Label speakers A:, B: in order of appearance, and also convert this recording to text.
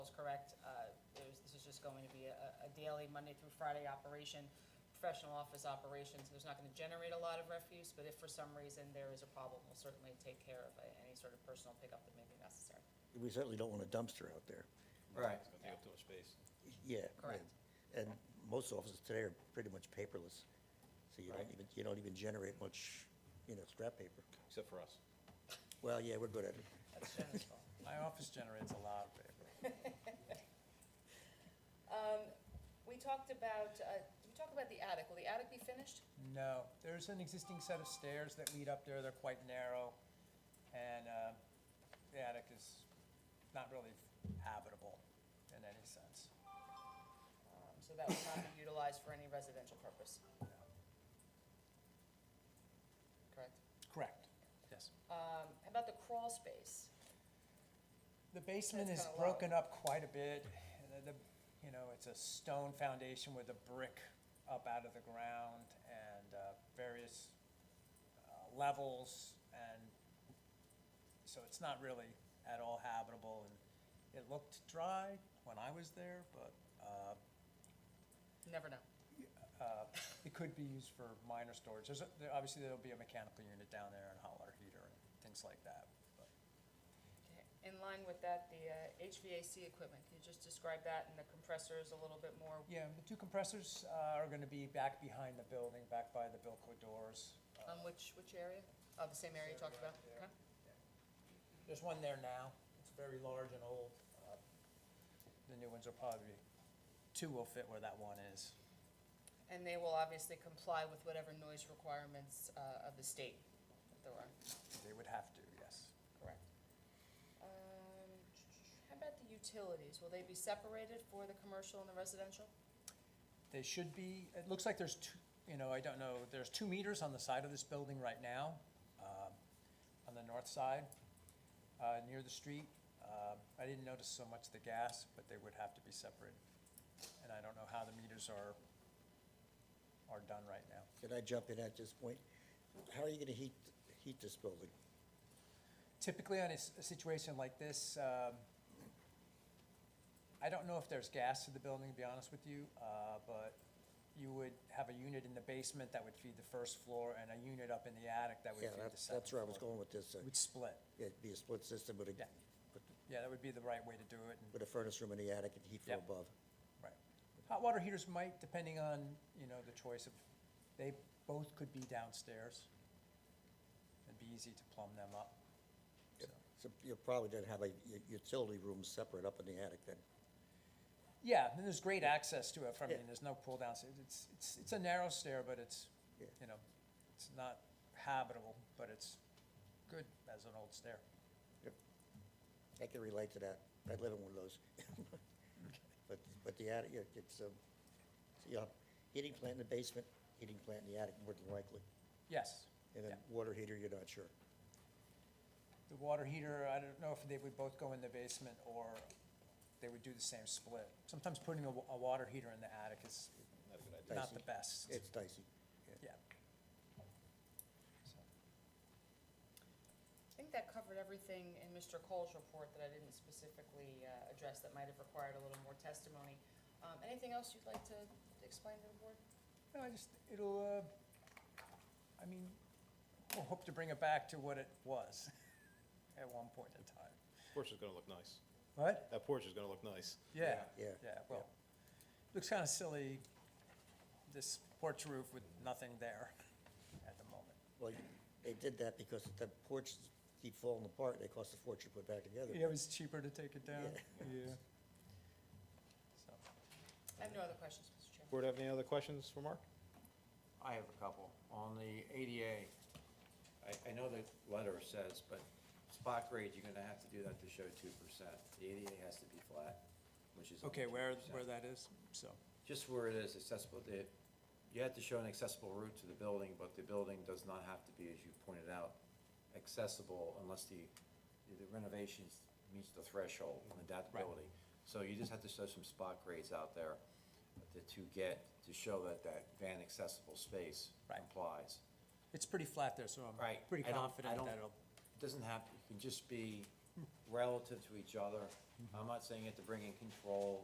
A: uh, just going to be a, a daily Monday through Friday operation, professional office operations. There's not gonna generate a lot of refuse, but if for some reason there is a problem, we'll certainly take care of uh, any sort of personal pickup that may be necessary.
B: We certainly don't want a dumpster out there.
C: Right.
D: It's gonna take up too much space.
B: Yeah.
A: Correct.
B: And and most offices today are pretty much paperless, so you don't
C: Right.
B: even, you don't even generate much, you know, scrap paper.
D: Except for us.
B: Well, yeah, we're good at it.
A: That's Jenna's fault.
C: My office generates a lot of paper.
A: Um, we talked about, uh, did we talk about the attic? Will the attic be finished?
C: No, there's an existing set of stairs that lead up there, they're quite narrow, and uh, the attic is not really habitable in any sense.
A: Um, so that will not be utilized for any residential purpose, correct?
C: Correct. Yes.
A: Um, how about the crawl space?
C: The basement
A: That's
C: is
A: kinda low.
C: broken up quite a bit. and the- the- You know, it's a stone foundation with a brick up out of the ground and uh, various uh, levels. And so it's not really at all habitable. And it looked dry when I was there, but uh,
A: Never know.
C: it could be used for minor storage. There's, a- there- obviously, there'll be a mechanical unit down there and a hot water heater and things like that. but-
A: In line with that, the uh, HVAC equipment, can you just describe that and the compressors a little bit more?
C: Yeah, the two compressors uh, are going to be back behind the building, back by the Bilco doors.
A: On
C: Uh,
A: um, which, which area? Oh, the same area you talked about?
C: Yeah.
A: Okay.
C: There's one there now. It's very large and old. Uh, The new ones are probably, two will fit where that one is.
A: And they will obviously comply with whatever noise requirements, uh, of the state that there are.
C: They would have to, yes.
A: Correct. Um, How about the utilities? Will they be separated for the commercial and the residential?
C: They should be, it looks like there's two, you know, I don't know, there's two meters on the side of this building right now, um, on the north side, uh, near the street. Um, I didn't notice so much the gas, but they would have to be separated. And I don't know how the meters are, are done right now.
B: Can I jump in at this point? How are you gonna heat, heat this building?
C: Typically, on a s- a situation like this, um, I don't know if there's gas to the building, to be honest with you, uh, but you would have a unit in the basement that would feed the first floor and a unit up in the attic that would
B: Yeah,
C: feed the
B: that's,
C: second
B: that's where I was
C: floor.
B: going with this. uh,
C: Would split.
B: It'd be a split system with a,
C: Yeah. Yeah, that would be the right way to do it. and-
B: with a furnace room in the attic and heat from
C: Yep.
B: above.
C: Right. Hot water heaters might, depending on, you know, the choice of, they both could be downstairs. It'd be easy to plumb them up.
B: Yep.
C: so.
B: So you probably didn't have a u- utility room separate up in the attic then.
C: Yeah, and there's great access to it from, I
B: Yeah.
C: mean, there's no pull down, stairs. it's, it's, it's a narrow stair, but it's,
B: Yeah.
C: you know, it's not habitable, but it's good as an old stair.
B: Yep. I can relate to that. I live in one of those. But, but the attic, yeah, it's, um, so you have heating plant in the basement, heating plant in the attic more than likely.
C: Yes.
B: And then
C: Yeah.
B: water heater, you're not sure.
C: The water heater, I don't know if they would both go in the basement or they would do the same split. Sometimes putting a, wa- a water heater in the attic is
D: Not a good idea.
C: not the
B: Dicey.
C: best.
B: It's dicey.
C: Yeah. So,
A: I think that covered everything in Mr. Cole's report that I didn't specifically uh, address that might have required a little more testimony. Um, Anything else you'd like to explain to the board?
C: No, I just, it'll, uh, I mean, we'll hope to bring it back to what it was at one point in time.
D: Porch is gonna look nice.
C: What?
D: That porch is gonna look nice.
C: Yeah.
B: Yeah.
C: Yeah, well, looks kind of silly, this porch roof with nothing there at the moment.
B: Well, they did that because the porches keep falling apart. They cost a fortune to put back together.
C: Yeah, it was cheaper to take it down. Yeah. So,
A: I have no other questions, Mr. Chairman.
D: Board have any other questions for Mark?
E: I have a couple. On the ADA, I, I know the letter says, but spot grade, you're gonna have to do that to show two percent. The ADA has to be flat, which is.
C: Okay,
E: only
C: where,
E: 2%.
C: where that is, so,
E: Just where it is accessible, the, you have to show an accessible route to the building, but the building does not have to be, as you pointed out, accessible unless the, the renovations meets the threshold on the
C: Right.
E: adaptability. So you just have to show some spot grades out there to, to get, to show that that van accessible space
C: Right.
E: applies.
C: it's pretty flat there, so I'm
E: Right.
C: pretty
E: I don't- I
C: confident
E: don't-
C: that it'll,
E: It Doesn't
C: Mm-hmm.
E: have, it can just be relative to each other. I'm not saying you have to bring in control